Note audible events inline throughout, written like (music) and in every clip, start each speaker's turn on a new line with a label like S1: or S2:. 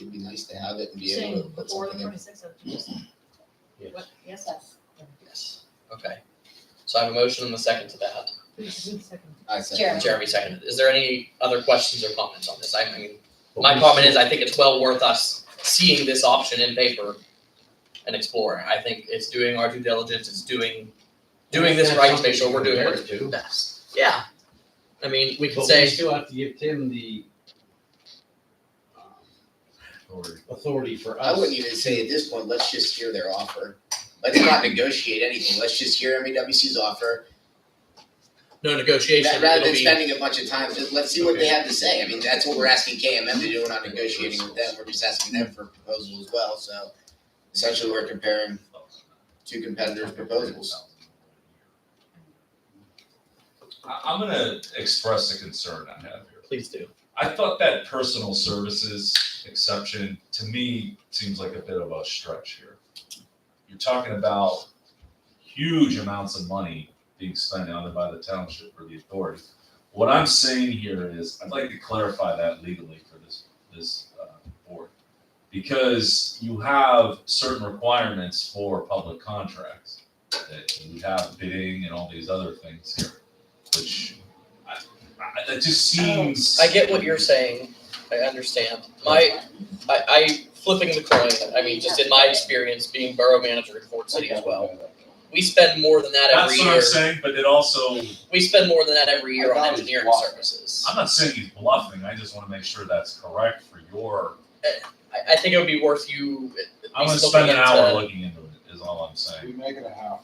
S1: it'd be nice to have it and be able to
S2: Saying
S1: put
S2: or
S1: something
S2: the
S1: in.
S2: twenty-sixth of Tuesday.
S3: Yes.
S2: What, yes,
S4: Yes.
S3: Yes, okay. So I have a motion and a second to that.
S2: who's, who's second?
S1: I said,
S4: Sure.
S3: Jeremy seconded. Is there any other questions or comments on this? I mean,
S5: But
S3: my
S5: we
S3: comment
S5: still-
S3: is I think it's well worth us seeing this option in paper and exploring. I think it's doing our due diligence, it's doing, doing this
S5: That's
S3: right to
S5: something
S3: make sure we're doing our
S5: compared to.
S3: best. Yeah. I mean, we
S5: But
S3: could
S5: we
S3: say,
S5: still have to give Tim the um, authority for
S1: I
S5: us.
S1: wouldn't even say at this point, let's just hear their offer. Let's not negotiate anything, let's just hear MAWC's offer.
S3: no negotiation,
S1: Ra- Rather
S3: it'll
S1: than
S3: be,
S1: spending a bunch of time, just let's see what they have to say. I mean, that's what we're asking KMM to do, we're not negotiating with them, we're just asking them for a proposal as well, so. Essentially, we're comparing two competitors' proposals.
S6: I, I'm gonna express a concern I have here.
S3: please do.
S6: I thought that personal services exception, to me, seems like a bit of a stretch here. You're talking about huge amounts of money being spent either by the township or the authority. What I'm saying here is, I'd like to clarify that legally for this, this, uh, board. Because you have certain requirements for public contracts, that you have bidding and all these other things here, which I, I, it just seems.
S3: I get what you're saying. I understand. My, I, I flipping the coin, I mean, just in my experience being borough manager in Fort City as well. We spend more than that every
S6: That's what
S3: year.
S6: I'm saying, but it also,
S3: We spend more than that every year
S1: I
S3: on
S1: thought it was
S3: engineering
S1: blocked.
S3: services.
S6: I'm not saying he's bluffing, I just wanna make sure that's correct for your,
S3: I, I think it would be worth you. at
S6: I'm gonna
S3: least
S6: spend an
S3: looking
S6: hour
S3: into-
S6: looking into it, is all I'm saying. (laughs)
S7: make it a half.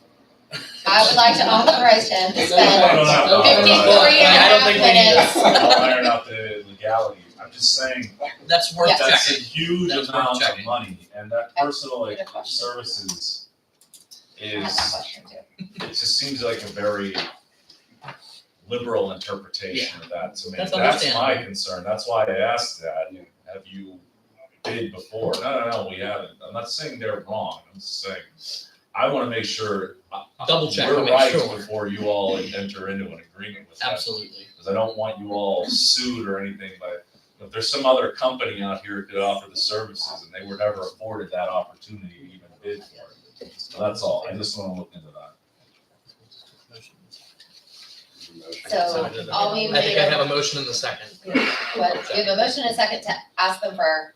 S4: I would like to authorize him to
S6: I
S4: spend
S6: don't have to iron out-
S4: fifty-three and a
S3: I don't
S4: half
S3: think we need-
S4: minutes.
S6: I'll (laughs) iron out the legality, I'm just saying,
S3: That's worth
S4: Yeah.
S6: that's a
S3: checking.
S6: huge
S3: That's worth
S6: amount of
S3: checking.
S6: money, and that
S4: I-
S6: personal like
S4: Good question.
S6: services
S4: I have that
S6: is,
S4: question too.
S6: it just seems like a very liberal interpretation of that to me.
S3: That's
S6: That's my
S3: understandable.
S6: concern, that's why I asked that, have you bid before? No, no, no, we haven't, I'm not saying they're wrong, I'm just saying, I wanna make sure. uh, uh,
S3: Double check, I
S6: We're
S3: mean,
S6: right
S3: sure.
S6: before you all enter into an agreement with that
S3: Absolutely.
S6: because I don't want you all sued or anything, but if there's some other company out here who could offer the services and they were never afforded that opportunity to even bid for it. So that's all, I just wanna look into that.
S4: So all we
S3: I think I
S4: made,
S3: have a motion in the second.
S4: was we have a motion and a second to ask them for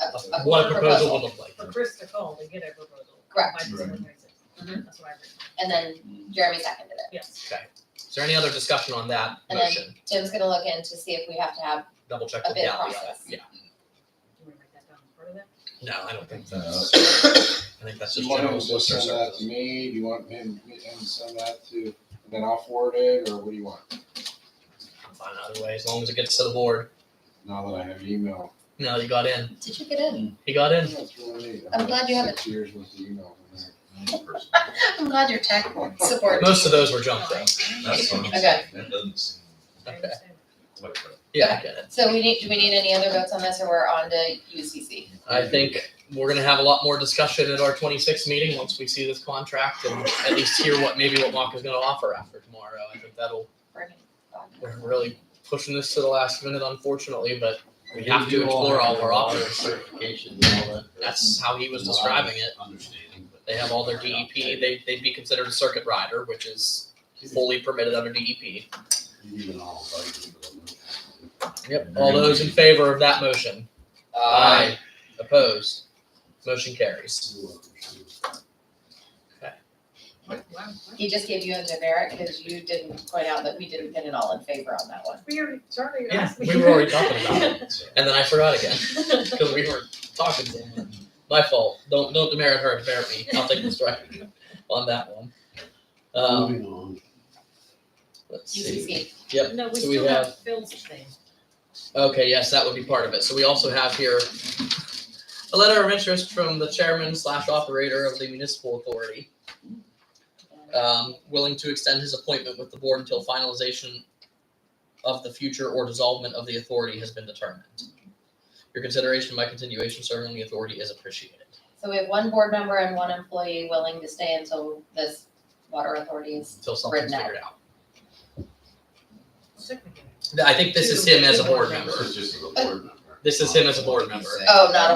S4: a, a
S3: What a proposal
S4: proposal,
S3: would look like.
S2: For Chris to call to get a proposal.
S4: Correct.
S2: By December twenty-sixth.
S4: Mhm.
S2: Uh-huh, That's what I agree,
S4: and then Jeremy seconded it.
S2: yes.
S3: Is there any other discussion on that
S4: And then-
S3: motion?
S4: Jim's gonna look in to see if we have to have,
S3: Double check
S4: a
S3: the
S4: bid
S3: legality of it.
S4: process.
S3: Yeah.
S2: Do you wanna break that down as part of that?
S3: No, I don't think,
S6: No, that's-
S3: I think that's
S7: Do
S3: just
S7: you want
S3: general
S7: him to
S3: solicitor
S7: send that to
S3: services.
S7: me, do you want him, him to send that to, and then I'll forward it, or what do you want?
S3: I'm Fine either way, as long as it gets to the board.
S7: Now that I have email.
S3: No, you got in.
S4: did you get in?
S3: He got in.
S7: That's really neat.
S4: I'm glad you have
S7: Six years with the email. from there.
S4: I'm glad your tech support.
S3: Most of those were junk though.
S6: That's what I'm
S4: Okay.
S6: saying, that doesn't seem
S2: I
S3: Okay.
S2: understand.
S6: like a-
S3: Yeah, I get it.
S4: So we need, do we need any other votes on this, or we're on to UCC?
S3: I think we're gonna have a lot more discussion at our twenty-sixth meeting, once we see this contract and at least hear what, maybe what Mock is gonna offer after tomorrow. I think that'll,
S4: Bring it back.
S3: we're really pushing this to the last minute unfortunately, but we
S5: You
S3: have to
S5: do
S3: explore
S5: have
S3: all our
S5: a lot of
S3: options.
S5: Certifications and all that.
S3: That's
S5: Mm-hmm.
S3: how he was describing it.
S5: Understanding. but-
S3: They have all their E DEP, they, they'd be considered a circuit rider, which is fully permitted under E DEP.
S5: Even all budget, but I'm not-
S3: Yep, all those in favor of that motion?
S1: Uh,
S3: Opposed? Motion carries.
S2: What, why, why-
S4: He just gave you a generic, because you didn't point out that we didn't get an all in favor on that one.
S2: We already, Charlie
S3: Yeah,
S2: asked me.
S3: we were already talking about it. And then I forgot
S5: (laughs)
S3: again. because we were talking to him. My fault. Don't don't demerit her, demerit me. I'll take the strike
S5: (laughs)
S3: on that one. Um,
S5: Moving on.
S3: let's see.
S2: (laughs)
S4: UCC,
S2: No, we
S3: So we
S2: still have Phil's thing.
S3: Okay, yes, that would be part of it. So we also have here a letter of interest from the chairman slash operator of the municipal authority, um, willing to extend his appointment with the board until finalization of the future or dissolvement of the authority has been determined. Your consideration of my continuation serving on the authority is appreciated.
S4: so we have one board member and one employee willing to stay until this water authority is
S3: Until something's
S4: Written out.
S3: figured out.
S2: Technically.
S3: I think this is him as a board member.
S5: This is just a board member.
S3: This is him as a board member.
S1: Oh, not a